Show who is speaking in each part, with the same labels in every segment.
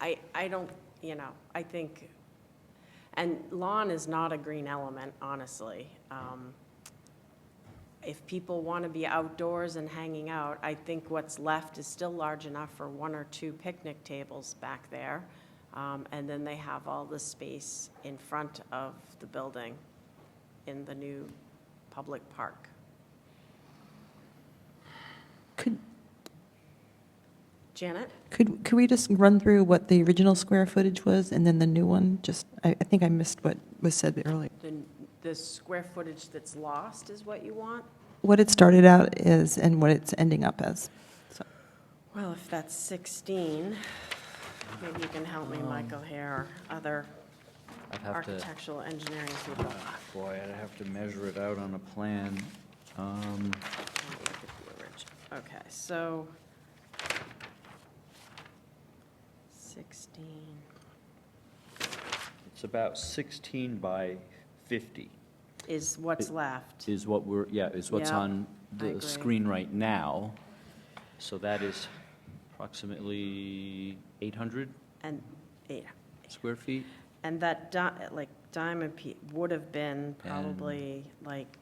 Speaker 1: I, I don't, you know, I think, and lawn is not a green element, honestly. Um, If people want to be outdoors and hanging out, I think what's left is still large enough for one or two picnic tables back there. Um, And then they have all the space in front of the building in the new public park.
Speaker 2: Could,
Speaker 1: Janet?
Speaker 2: could, could we just run through what the original square footage was and then the new one? Just, I, I think I missed what was said earlier.
Speaker 1: The, the square footage that's lost is what you want?
Speaker 2: What it started out as and what it's ending up as. So,
Speaker 1: Well, if that's 16, maybe you can help me, Michael, here, or other
Speaker 3: I'd Um, have to, Uh,
Speaker 1: architectural engineering people.
Speaker 3: boy, I'd have to measure it out on a plan. Um,
Speaker 1: Let me look at the orig- Okay, so 16,
Speaker 3: It's about 16 by 50
Speaker 1: is what's left.
Speaker 3: is what we're, yeah, is what's
Speaker 1: Yeah,
Speaker 3: on
Speaker 1: I
Speaker 3: the
Speaker 1: agree.
Speaker 3: screen right now. So that is approximately 800
Speaker 1: And, yeah,
Speaker 3: square feet?
Speaker 1: and that, di- like, diamond pe would have been probably like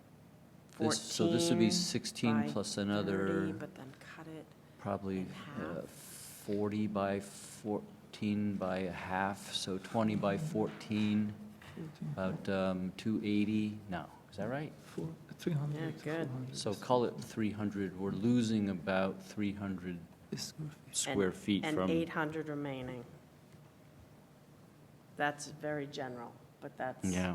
Speaker 1: 14
Speaker 3: This- So this would be
Speaker 1: by
Speaker 3: 16 plus
Speaker 1: 30,
Speaker 3: another,
Speaker 1: but then cut it.
Speaker 3: probably
Speaker 1: and
Speaker 3: uh,
Speaker 1: half.
Speaker 3: 40 by 14 by a half, so 20 by 14, about um, 280, no, is that right?
Speaker 4: Four, three hundred.
Speaker 1: Yeah, good.
Speaker 3: So call it 300, we're losing about 300 square feet
Speaker 1: And
Speaker 3: from,
Speaker 1: 800 remaining. That's very general, but that's.
Speaker 3: yeah,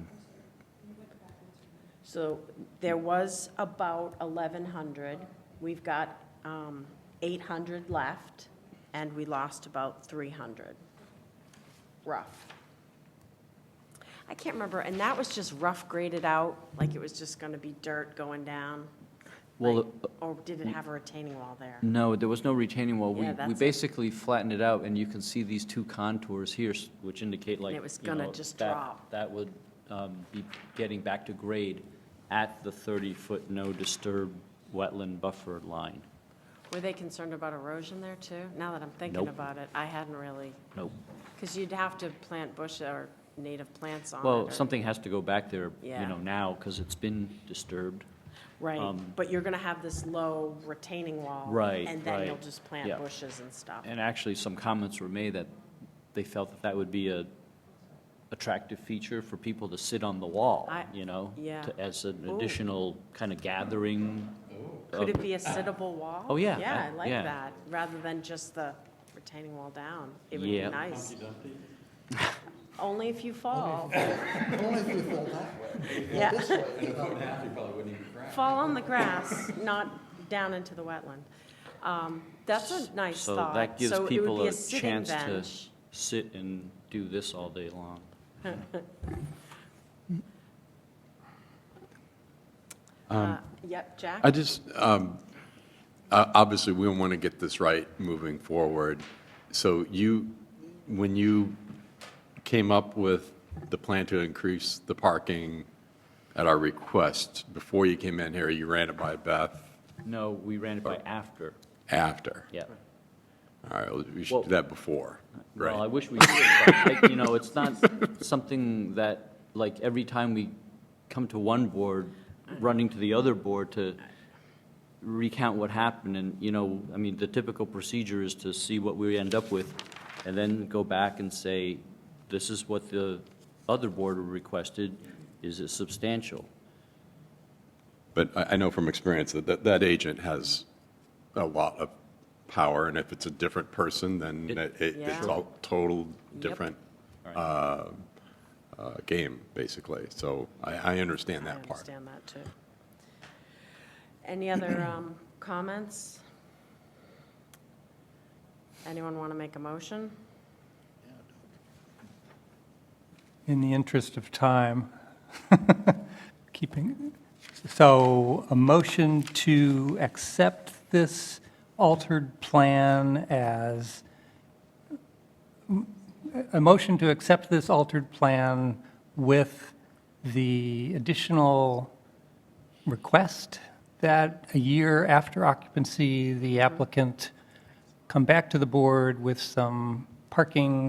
Speaker 1: So there was about 1,100. We've got um, 800 left, and we lost about 300, rough. I can't remember, and that was just rough graded out, like it was just going to be dirt going down?
Speaker 3: Well, uh, Mm.
Speaker 1: like- Or did it have a retaining wall there?
Speaker 3: no, there was no retaining wall. We,
Speaker 1: Yeah,
Speaker 3: we
Speaker 1: that's it.
Speaker 3: basically flattened it out, and you can see these two contours here, s- which indicate like,
Speaker 1: it was
Speaker 3: you
Speaker 1: gonna
Speaker 3: know,
Speaker 1: just
Speaker 3: that-
Speaker 1: drop.
Speaker 3: That would um, be getting back to grade at the 30-foot no disturb wetland buffer line.
Speaker 1: Were they concerned about erosion there too? Now that I'm thinking
Speaker 3: Nope.
Speaker 1: about it, I hadn't really,
Speaker 3: Nope.
Speaker 1: because you'd have to plant bush or native plants on it.
Speaker 3: Well,
Speaker 1: or-
Speaker 3: something has to go back there, you
Speaker 1: Yeah.
Speaker 3: know, now, because it's been disturbed.
Speaker 1: Right,
Speaker 3: um,
Speaker 1: but you're going to have this low retaining wall.
Speaker 3: Right,
Speaker 1: And then you'll
Speaker 3: right,
Speaker 1: just plant
Speaker 3: yeah.
Speaker 1: bushes and stuff.
Speaker 3: And actually, some comments were made that they felt that that would be a attractive feature for people to sit on the wall,
Speaker 1: I-
Speaker 3: you know?
Speaker 1: yeah.
Speaker 3: to- As an
Speaker 1: Ooh.
Speaker 3: additional kind of gathering.
Speaker 1: Could
Speaker 3: of-
Speaker 1: it be a sittable wall?
Speaker 3: um, Oh, yeah,
Speaker 1: Yeah,
Speaker 3: I-
Speaker 1: I like
Speaker 3: yeah.
Speaker 1: that, rather than just the retaining wall down. It would be
Speaker 3: Yeah.
Speaker 1: nice. Only if you fall.
Speaker 5: Only if you fall that way.
Speaker 1: Yeah. Fall on the grass, not down into the wetland. Um, That's a nice
Speaker 3: So
Speaker 1: thought.
Speaker 3: that gives
Speaker 1: So it would
Speaker 3: people
Speaker 1: be
Speaker 3: a
Speaker 1: sitting
Speaker 3: chance to-
Speaker 1: bench.
Speaker 3: Sit and do this all day long.
Speaker 1: Uh, Yep, Jack?
Speaker 5: Um, I just, um, uh, obviously, we want to get this right moving forward. So you, when you came up with the plan to increase the parking at our request, before you came in here, you ran it by Beth
Speaker 3: No, we ran it by after,
Speaker 5: after.
Speaker 3: yeah.
Speaker 5: All right, well, we
Speaker 3: Well-
Speaker 5: should do that before,
Speaker 3: Well, I
Speaker 5: right?
Speaker 3: wish we did, but, like, you know, it's not something that, like, every time we come to one board, running to the other board to recount what happened, and, you know, I mean, the typical procedure is to see what we end up with, and then go back and say, this is what the other board requested, is it substantial?
Speaker 5: But I, I know from experience that, that that agent has a lot of power, and if it's a different person, then
Speaker 3: It-
Speaker 5: it, it- it's
Speaker 1: Yeah.
Speaker 5: all total
Speaker 1: Yep.
Speaker 5: different
Speaker 3: All right.
Speaker 5: uh, game, basically. So I, I understand that
Speaker 1: I
Speaker 5: part.
Speaker 1: understand that, too. Any other um, comments? Anyone want to make a motion?
Speaker 6: in the interest of time, keeping, so a motion to accept this altered plan as, a motion to accept this altered plan with the additional request that a year after occupancy, the applicant come back to the board with some parking